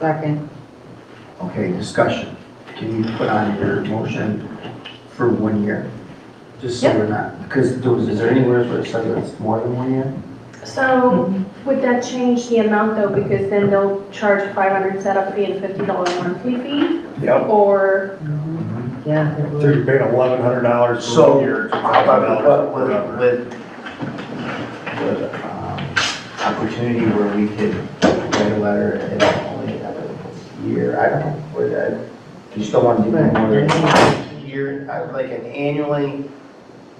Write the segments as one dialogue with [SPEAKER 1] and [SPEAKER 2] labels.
[SPEAKER 1] Second.
[SPEAKER 2] Okay, discussion. Can you put on your motion for one year? Just so
[SPEAKER 1] Yep.
[SPEAKER 2] we're not, because there was, is there anywhere where it says it's more than one year?
[SPEAKER 3] So would that change the amount though, because then they'll charge five hundred setup fee and fifty dollar monthly fee?
[SPEAKER 4] Yep.
[SPEAKER 3] Or,
[SPEAKER 2] Mm-hmm.
[SPEAKER 1] Yeah. it
[SPEAKER 4] So
[SPEAKER 1] would.
[SPEAKER 4] you're paying eleven hundred dollars for
[SPEAKER 2] So,
[SPEAKER 4] one year.
[SPEAKER 2] How about with,
[SPEAKER 4] $2,000
[SPEAKER 2] with, with, with, um, opportunity where we could write a letter and only have a year, I don't know, where that, you still want to do that more than a year, I would like an annually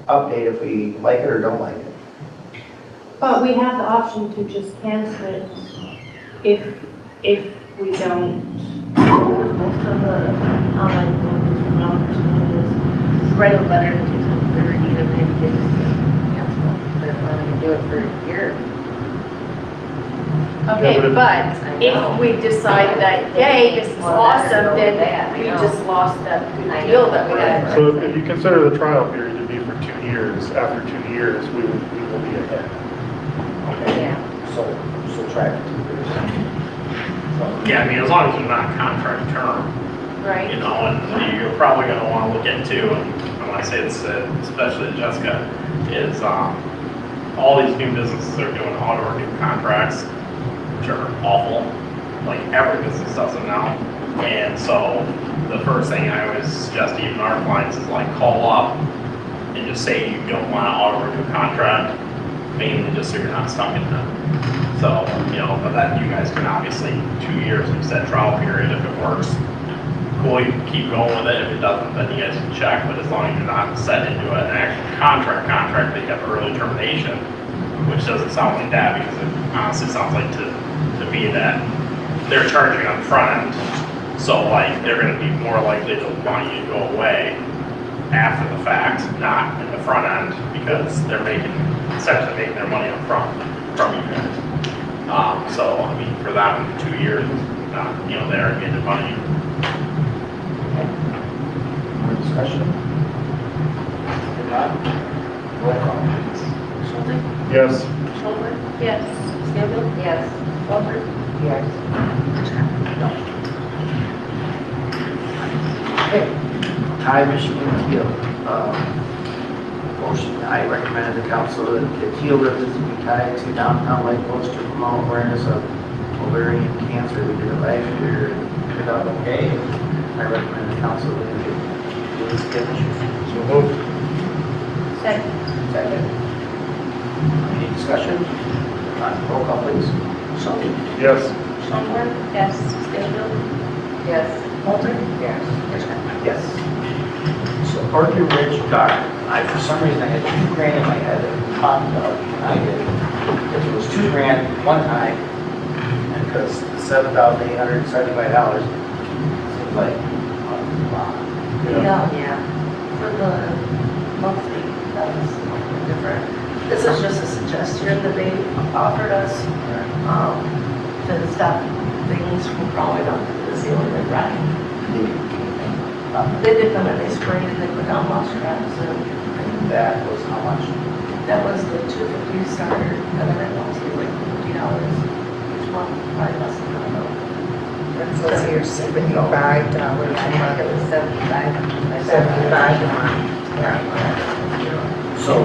[SPEAKER 2] update if we like it or don't like it.
[SPEAKER 3] but we have the option to just cancel it if, if we don't.
[SPEAKER 5] Most of the online voters and opportunities, write a letter to their need of it, they just cancel. They're planning to do it for a year.
[SPEAKER 4] Okay, but if-
[SPEAKER 5] but
[SPEAKER 3] If we decide that, yay, this is awesome, then we just lost that good deal that we had.
[SPEAKER 4] So if you consider the trial period to be for two years, after two years, we will, we will be ahead.
[SPEAKER 5] Yeah.
[SPEAKER 2] So, so try it. So,
[SPEAKER 6] Yeah, I mean, as long as it's not contract term, you
[SPEAKER 3] Right.
[SPEAKER 6] know, and you're probably gonna wanna look into, and I wanna say this, uh, especially to Jessica, is, um, all these new businesses are doing auto renew contracts, which are awful, like every business does them now. And so, the first thing I always suggest to even our clients is like, call up and just say you don't want an auto renew contract, mainly just so you're not stuck in them. So, you know, but then you guys can obviously, two years, like you said, trial period, if it works, cool, you can keep going with it, if it doesn't, then you guys can check, but as long as you're not set into an actual contract, contract that you have early termination, which doesn't sound like that, because it honestly sounds like to, to me that they're charging up front, so like, they're gonna be more likely to want you to go away after the fact, not in the front end, because they're making, essentially making their money up front from you guys. Um, so, I mean, for that, two years, uh, you know, they're getting money.
[SPEAKER 2] More discussion? If not, roll call.
[SPEAKER 5] Schulman,
[SPEAKER 4] Yes.
[SPEAKER 5] Schulman,
[SPEAKER 3] Yes.
[SPEAKER 5] Scanlon, yes. Walter,
[SPEAKER 1] Yes.
[SPEAKER 2] Hi, Michigan Teal. Um, Motion, I recommend the council that the Teal Ribbons be tied to downtown Lake Coast to promote awareness of ovarian cancer. We did it last year, and it turned out okay. I recommend the council that it is given.
[SPEAKER 4] So moved.
[SPEAKER 3] Second.
[SPEAKER 2] Second. Any discussion? Uh, Roll call, please.
[SPEAKER 5] Schulman,
[SPEAKER 4] Yes.
[SPEAKER 5] Schulman,
[SPEAKER 3] Yes.
[SPEAKER 5] Scanlon. Yes. Walter,
[SPEAKER 2] Yes.
[SPEAKER 5] Hitchcock.
[SPEAKER 2] Yes. So Parker Ridge Dock, I, for some reason, I had two grand in my head that popped up, and I did. Because it was two grand one time, and because seven thousand eight hundred and seventy-five dollars seems like a lot.
[SPEAKER 4] Yeah.
[SPEAKER 5] Yeah, for the monthly, that was something different. This is just a suggestion that they offered us, um, to stop things from crawling up to the ceiling and rotting. Uh, They did come and they sprayed and they put down moss traps and
[SPEAKER 2] And that was how much?
[SPEAKER 5] that was the two fifty starter, and then it was like fifty dollars each month, probably less than that.
[SPEAKER 7] That's what's here, seventy-five dollars a month. It was seventy-five. Seventy-five a month, yeah.
[SPEAKER 2] So,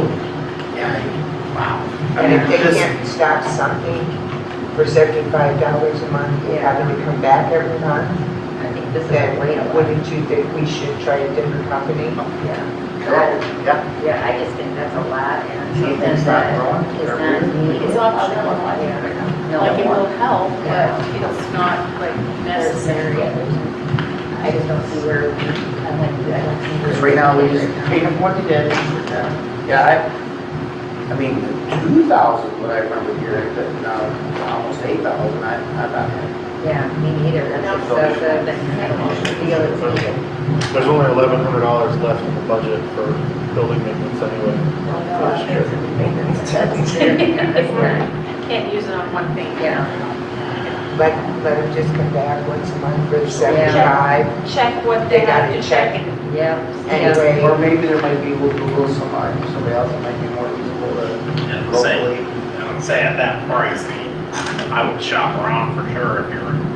[SPEAKER 2] yeah, I- wow. I mean,
[SPEAKER 7] And if they
[SPEAKER 2] this-
[SPEAKER 7] can't stop something for seventy-five dollars a month, and having to come back every month,
[SPEAKER 5] I think this
[SPEAKER 7] then wouldn't you think we should try a different company?
[SPEAKER 5] Yeah,
[SPEAKER 2] Yeah.
[SPEAKER 8] Yeah, I just think that's a lot and
[SPEAKER 2] Do you think it's not
[SPEAKER 8] something that
[SPEAKER 2] wrong?
[SPEAKER 8] is not.
[SPEAKER 5] It's optional.
[SPEAKER 3] Like it
[SPEAKER 8] No.
[SPEAKER 3] will help, but it's not like necessary.
[SPEAKER 8] Yeah, there's- I just don't see where, we- I'm like, I don't see where.
[SPEAKER 2] Because right now, we just paid them what they did. Yeah, I, I mean, two thousand, what I remember here, but now it's almost eight thousand, I, I thought.
[SPEAKER 8] Yeah, me neither, that's excessive, that's kind of a deal, it's even.
[SPEAKER 4] There's only eleven hundred dollars left in the budget for building maintenance anyway.
[SPEAKER 8] No, no, I think it's a maintenance.
[SPEAKER 3] It's not, can't use it on one thing.
[SPEAKER 8] Yeah,
[SPEAKER 7] Let, let them just come back once a month for
[SPEAKER 8] Yeah.
[SPEAKER 7] seventy-five?
[SPEAKER 3] Check what they
[SPEAKER 7] They
[SPEAKER 3] have
[SPEAKER 7] gotta
[SPEAKER 3] to
[SPEAKER 7] check.
[SPEAKER 3] check and
[SPEAKER 8] yeah.
[SPEAKER 7] Anyway.
[SPEAKER 2] Or maybe there might be, we'll Google somebody, somebody else that might be more usable to
[SPEAKER 6] And say,
[SPEAKER 2] locally.
[SPEAKER 6] and say at that price, I mean, I would shop around for sure if you're